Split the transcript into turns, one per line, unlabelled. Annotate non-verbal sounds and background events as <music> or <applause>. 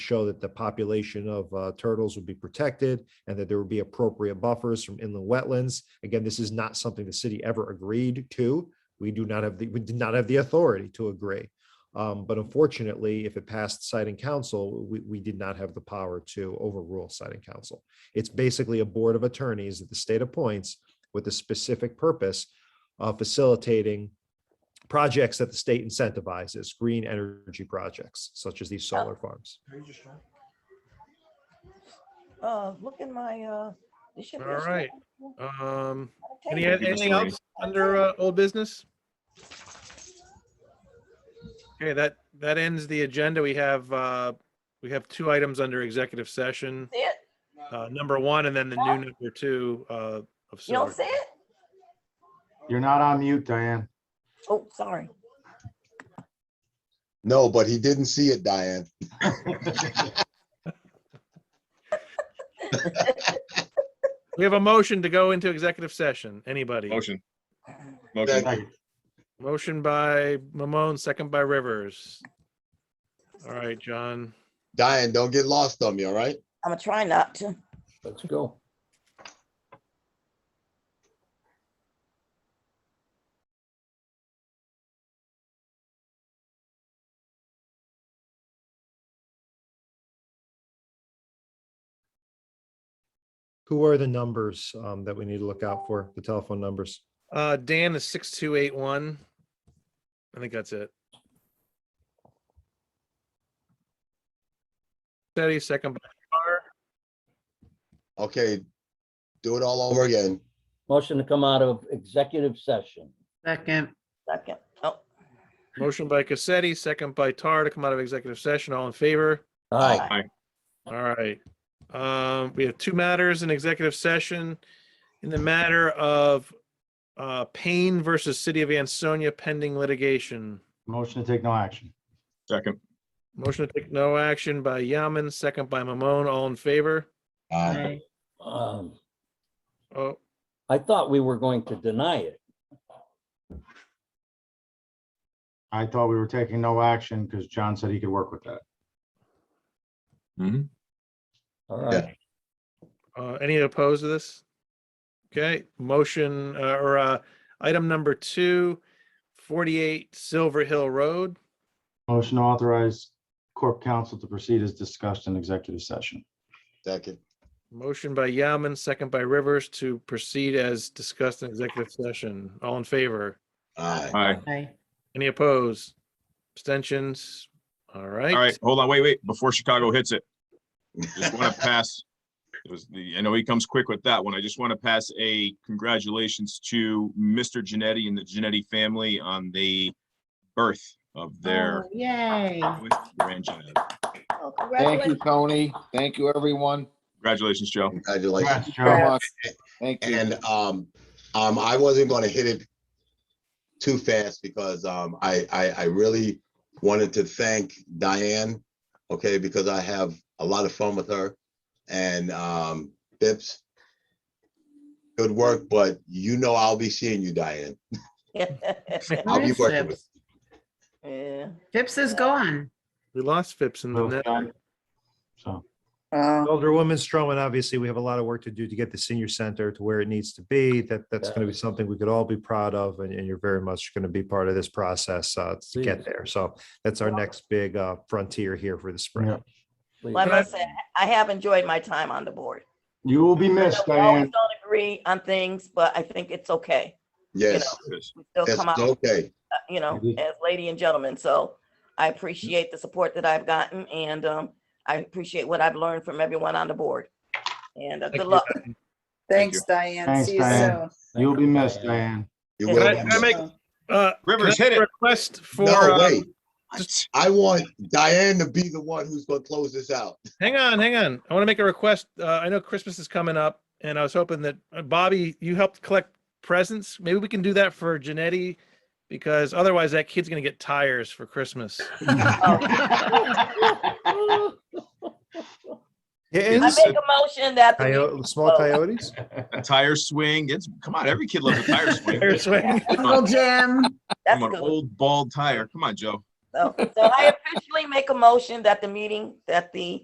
show that the population of uh, turtles would be protected and that there would be appropriate buffers from inland wetlands. Again, this is not something the city ever agreed to. We do not have, the we did not have the authority to agree. Um, But unfortunately, if it passed citing council, we, we did not have the power to overrule citing council. It's basically a board of attorneys that the state appoints with a specific purpose of facilitating projects that the state incentivizes, green energy projects such as these solar farms.
Uh, look in my, uh. this should be a
All right.
small-
Um,
I'll
any,
take it.
anything else under uh, old business? Okay, that, that ends the agenda. We have, uh, we have two items under executive session.
See it?
Uh, number one and then the new number two, uh, of
You don't
sorts.
see it?
You're not on mute, Diane.
Oh, sorry.
No, but he didn't see it, Diane.
We have a motion to go into executive session. Anybody?
Motion. Motion.
Second.
Motion by Mamone, second by Rivers. All right, John.
Diane, don't get lost on me, all right?
I'm gonna try not to.
Let's go.
Who are the numbers um, that we need to look out for, the telephone numbers?
Uh, Dan is six, two, eight, one. I think that's it. Steady, second by Carr.
Okay, do it all over again.
Motion to come out of executive session.
Second,
Second. Oh,
Motion by Cassetti, second by Tar to come out of executive session. All in favor?
Aye.
All right. Um, we have two matters in executive session. In the matter of uh, Payne versus City of Ansonia pending litigation.
Motion to take no action.
Second.
Motion to take no action by Yaman, second by Mamone. All in favor?
Uh,
aye.
Um,
Oh,
I thought we were going to deny it.
I thought we were taking no action because John said he could work with that.
Mhm.
All right.
Uh, any opposed to this? Okay, motion, uh, or, uh, item number two, forty-eight Silver Hill Road.
Motion to authorize corp counsel to proceed as discussed in executive session.
Second,
Motion by Yaman, second by Rivers to proceed as discussed in executive session. All in favor?
aye.
All right.
Aye.
Any opposed? Abstentions? All right.
All right. Hold on. Wait, wait, before Chicago hits it. Just want to pass. It was the, I know he comes quick with that one. I just want to pass a congratulations to Mr. Genetti and the Genetti family on the birth of their
Oh, Yay.
fourth grandchild.
oh,
Thank you,
congratulations.
Tony. Thank you, everyone.
Congratulations, Joe.
Congratulations.
Congrats, Joe.
<laughs>
Thank you.
And um, um, I wasn't gonna hit it too fast because um, I, I, I really wanted to thank Diane, okay, because I have a lot of fun with her. And um, Bips, good work, but you know I'll be seeing you, Diane. I'll be
Where's
working with-
Phipps?
Yeah.
Phipps is gone.
We lost Phipps in the net.
uh,
So,
Uh,
Alderwoman Stroman, obviously, we have a lot of work to do to get the senior center to where it needs to be. That, that's going to be something we could all be proud of, and, and you're very much going to be part of this process uh, to get there. So that's our next big uh, frontier here for the spring.
Yeah.
Please.
Like I said, I have enjoyed my time on the board.
you will be
We
missed,
always
Diane.
don't agree on things, but I think it's okay.
Yes,
We still
it's
come out,
okay.
uh, you know,
Mhm.
as lady and gentleman. So I appreciate the support that I've gotten and, um, I appreciate what I've learned from everyone on the board. And uh,
Thank
good
you.
luck.
Thanks, Diane.
Thanks,
See you
Diane.
soon.
You'll be missed, Diane.
You
Can
will
I-
be
can I
missed.
make- Uh,
Rivers,
can I
hit it.
Request for,
No,
uh,
wait. I want Diane to be the one who's gonna close this out.
Hang on, hang on. I want to make a request. Uh, I know Christmas is coming up and I was hoping that uh, Bobby, you helped collect presents. Maybe we can do that for Janetti because otherwise that kid's going to get tires for Christmas.
<laughs>
Yeah,
I
and
make
this-
a motion that the meeting-
coyote- Small coyotes?
A tire swing. It's, come on, every kid loves a tire swing.
Tire swing.
Come
Uncle Jim.
that's
on,
good.
old bald tire. Come on, Joe.
So so I officially make a motion that the meeting, that the